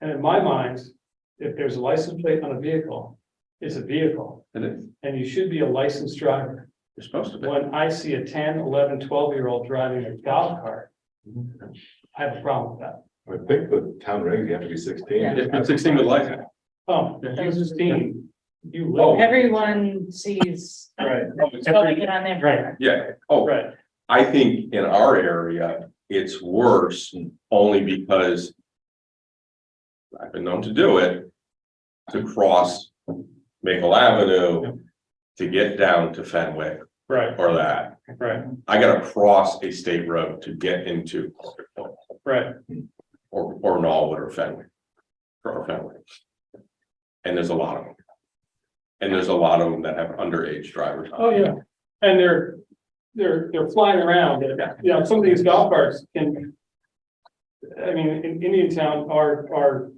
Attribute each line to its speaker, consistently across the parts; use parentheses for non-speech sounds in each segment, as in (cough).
Speaker 1: And in my mind, if there's a license plate on a vehicle, it's a vehicle,
Speaker 2: and it-
Speaker 1: and you should be a licensed driver.
Speaker 2: you're supposed to be.
Speaker 1: When I see a 10, 11, 12 year old driving a golf cart, I have a problem with that.
Speaker 3: I think the town regs, you have to be sixteen.
Speaker 4: Yeah.
Speaker 2: It's sixteen with license.
Speaker 1: Oh, you sixteen, you
Speaker 3: Oh.
Speaker 1: live.
Speaker 4: Everyone sees
Speaker 1: Right,
Speaker 4: something on their.
Speaker 1: Right.
Speaker 5: Yeah, oh,
Speaker 1: right.
Speaker 5: I think in our area, it's worse only because. I've been known to do it. To cross Maple Avenue to get down to Fenwick
Speaker 1: Right,
Speaker 5: or that.
Speaker 1: right,
Speaker 5: I gotta cross a state road to get into Orchard Point
Speaker 1: right.
Speaker 5: or or Norwood or Fenwick. Or Fenwick. And there's a lot of them. And there's a lot of them that have underage drivers. on
Speaker 1: Oh, yeah. And they're, they're, they're flying around. You know, some of these golf carts can. I mean, in Indian town, our, our.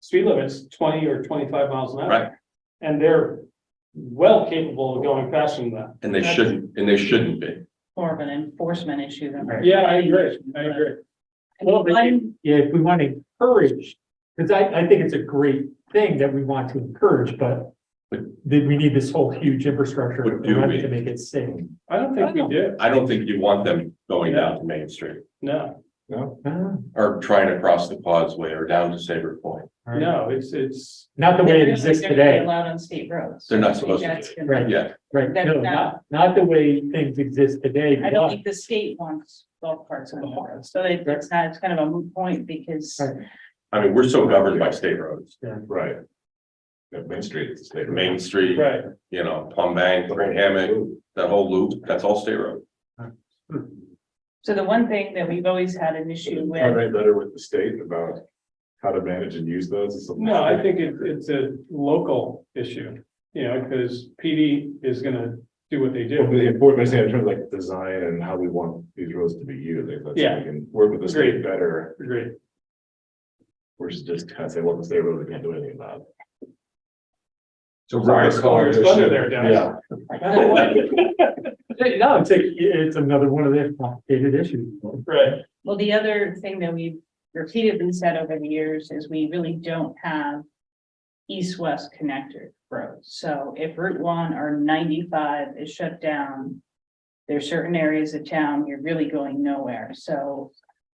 Speaker 1: Speed limit's twenty or twenty-five miles an hour.
Speaker 5: Right.
Speaker 1: And they're well capable of going faster than that.
Speaker 5: And they shouldn't, and they shouldn't be.
Speaker 4: More of an enforcement issue than.
Speaker 1: Yeah, I agree, I agree.
Speaker 6: Well, but if-
Speaker 4: One-
Speaker 6: yeah, if we want to encourage, because I, I think it's a great thing that we want to encourage, but
Speaker 5: But-
Speaker 6: then we need this whole huge infrastructure
Speaker 5: But do
Speaker 6: around it
Speaker 5: we?
Speaker 6: to make it safe.
Speaker 1: I don't think we do,
Speaker 5: I don't think you want them going down to Main Street
Speaker 1: no,
Speaker 3: No,
Speaker 6: Ah,
Speaker 5: or trying to cross the causeway or down to Saber Point.
Speaker 6: all right.
Speaker 1: no, it's, it's,
Speaker 6: Not the way it
Speaker 4: They're
Speaker 6: exists
Speaker 4: really
Speaker 6: today,
Speaker 4: Allowed on state roads.
Speaker 5: They're not supposed to
Speaker 4: That's gonna-
Speaker 6: Right.
Speaker 5: Yeah,
Speaker 6: right?
Speaker 4: That's
Speaker 6: No,
Speaker 4: not-
Speaker 6: not, not the way things exist today.
Speaker 4: I don't think the state wants golf carts on the road, so it- it's not, it's kind of a moot point because.
Speaker 6: Right.
Speaker 5: I mean, we're so governed by state roads,
Speaker 3: right. Yeah, Main Street is a state. road.
Speaker 5: Main Street,
Speaker 1: right,
Speaker 5: you know, Palm Bank, Green Hammock, that whole loop, that's all state road.
Speaker 4: So the one thing that we've always had an issue
Speaker 3: Are
Speaker 4: with,
Speaker 3: they better with the state about how to manage and use those? or something?
Speaker 1: no, I think it's, it's a local issue. You know, because PD is gonna do what they
Speaker 3: Well,
Speaker 1: do,
Speaker 3: The important thing in terms of like design and how we want these roads to be used, like, let's,
Speaker 1: Yeah.
Speaker 3: we can work with the state
Speaker 1: Agreed.
Speaker 3: better,
Speaker 1: agree,
Speaker 3: versus just kind of say, well, the state road, we can't do anything about. it.
Speaker 5: So
Speaker 1: Sorry, it's Ryan's thunder there, Dennis.
Speaker 3: Yeah.
Speaker 1: (laughs)
Speaker 6: No, it's, a- it's another one of the complicated issues.
Speaker 1: right,
Speaker 4: well, the other thing that we've repeatedly said over the years is we really don't have. East-west connector roads, so if Route one or ninety-five is shut down. There are certain areas of town, you're really going nowhere, so.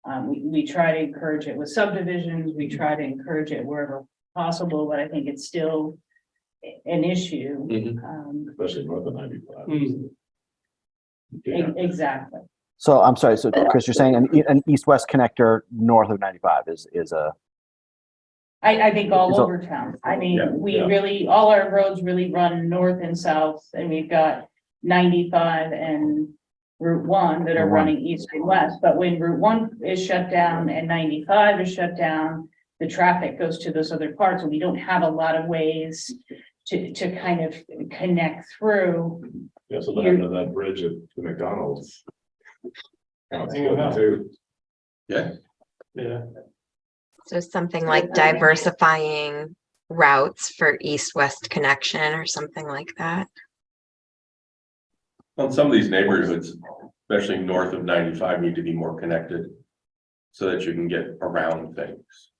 Speaker 4: Um, we, we try to encourage it with subdivisions, we try to encourage it wherever possible, but I think it's still. a- An issue,
Speaker 3: Mm-hmm.
Speaker 5: Mhm.
Speaker 4: um,
Speaker 3: Especially north of ninety-five.
Speaker 1: Mm.
Speaker 3: Yeah.
Speaker 4: e- exactly.
Speaker 7: So I'm sorry, so Chris, you're saying an, e- an east-west connector north of 95 is, is a,
Speaker 4: I, I think all
Speaker 7: It's all-
Speaker 4: over town. I
Speaker 5: Yeah,
Speaker 4: mean, we
Speaker 5: yeah.
Speaker 4: really, all our roads really run north and south and we've got ninety-five and Route one that are
Speaker 7: Route one.
Speaker 4: running east and west, but when Route one is shut down and ninety-five is shut down, the traffic goes to those other parts and we don't have a lot of ways to, to kind of connect through.
Speaker 3: Yeah, so then under that bridge at the McDonald's. Now it's
Speaker 1: Hang on.
Speaker 3: flooded too.
Speaker 1: yeah.
Speaker 8: So something like diversifying routes for east-west connection or something like that.
Speaker 5: On some of these neighborhoods, especially north of ninety-five, need to be more connected. So that you can get around things.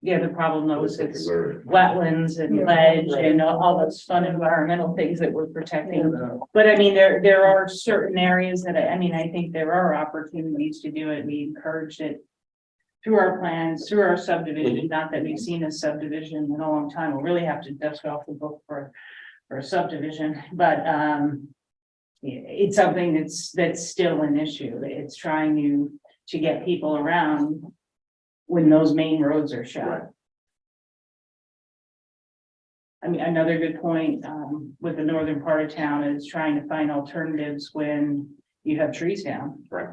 Speaker 4: Yeah, the problem though is
Speaker 3: It's a
Speaker 4: it's
Speaker 3: preserve.
Speaker 4: wetlands and ledge and all- all those fun environmental things that we're protecting. But I mean, there, there are certain areas that, I I mean, I think there are opportunities to do it. We encourage it through our plans, through our subdivision, not that we've seen a subdivision in a long time. We'll really have to dust off the book for, for a subdivision, but, um, yeah, it's something that's, that's still an issue. It's trying to, to get people around when those main roads are shut. I mean, another good point, um, with the northern part of town is trying to find alternatives when you have trees down.
Speaker 5: Right.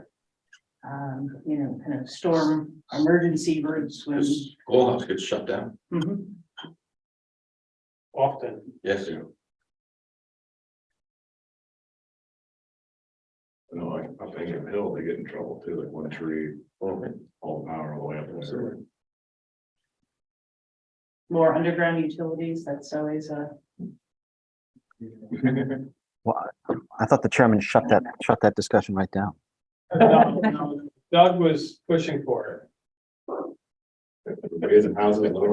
Speaker 4: Um, you know, kind of storm emergency routes when.
Speaker 5: This schoolhouse gets shut down.
Speaker 4: Mhm.
Speaker 1: often. (laughs)
Speaker 5: Yes, you know.
Speaker 3: No, like, up Ingham Hill, they get in trouble too, like one tree,
Speaker 1: Oh.
Speaker 3: all the power all the way up there.
Speaker 4: More underground utilities, that's always a,
Speaker 3: (laughs)
Speaker 7: I thought the chairman shut that, shut that discussion right down.
Speaker 1: Doug was pushing for it. (laughs)
Speaker 3: Everybody's in houses, little